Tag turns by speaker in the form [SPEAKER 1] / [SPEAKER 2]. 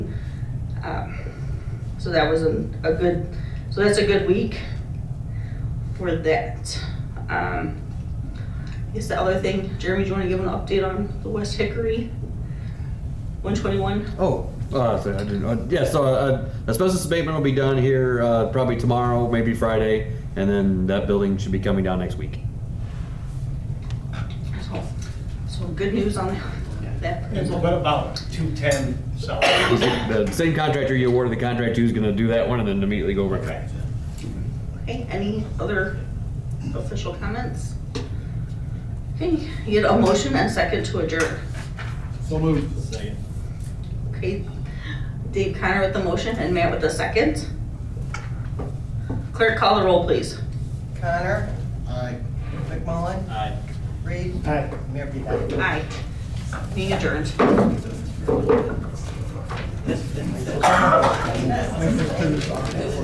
[SPEAKER 1] Um, So that was a, a good, so that's a good week for that. Um, I guess the other thing, Jeremy, do you wanna give an update on the West Hickory? One twenty-one?
[SPEAKER 2] Oh, uh, so I didn't, uh, yeah. So uh, asbestos abatement will be done here uh, probably tomorrow, maybe Friday, and then that building should be coming down next week.
[SPEAKER 1] So, so good news on that.
[SPEAKER 3] It's what about 210 South?
[SPEAKER 2] Is it the same contractor you awarded the contract to is going to do that one, and then immediately go right back.
[SPEAKER 1] Okay, any other official comments? Okay, you get a motion and second to adjourn.
[SPEAKER 3] So moved. Second.
[SPEAKER 1] Okay, Dave Connor with the motion and Matt with the second. Clerk, call the roll, please.
[SPEAKER 4] Connor,
[SPEAKER 3] Aye.
[SPEAKER 4] McMullen,
[SPEAKER 3] Aye.
[SPEAKER 4] Reed,
[SPEAKER 3] Aye.
[SPEAKER 4] Mayor Pete.
[SPEAKER 1] Aye. Being adjourned.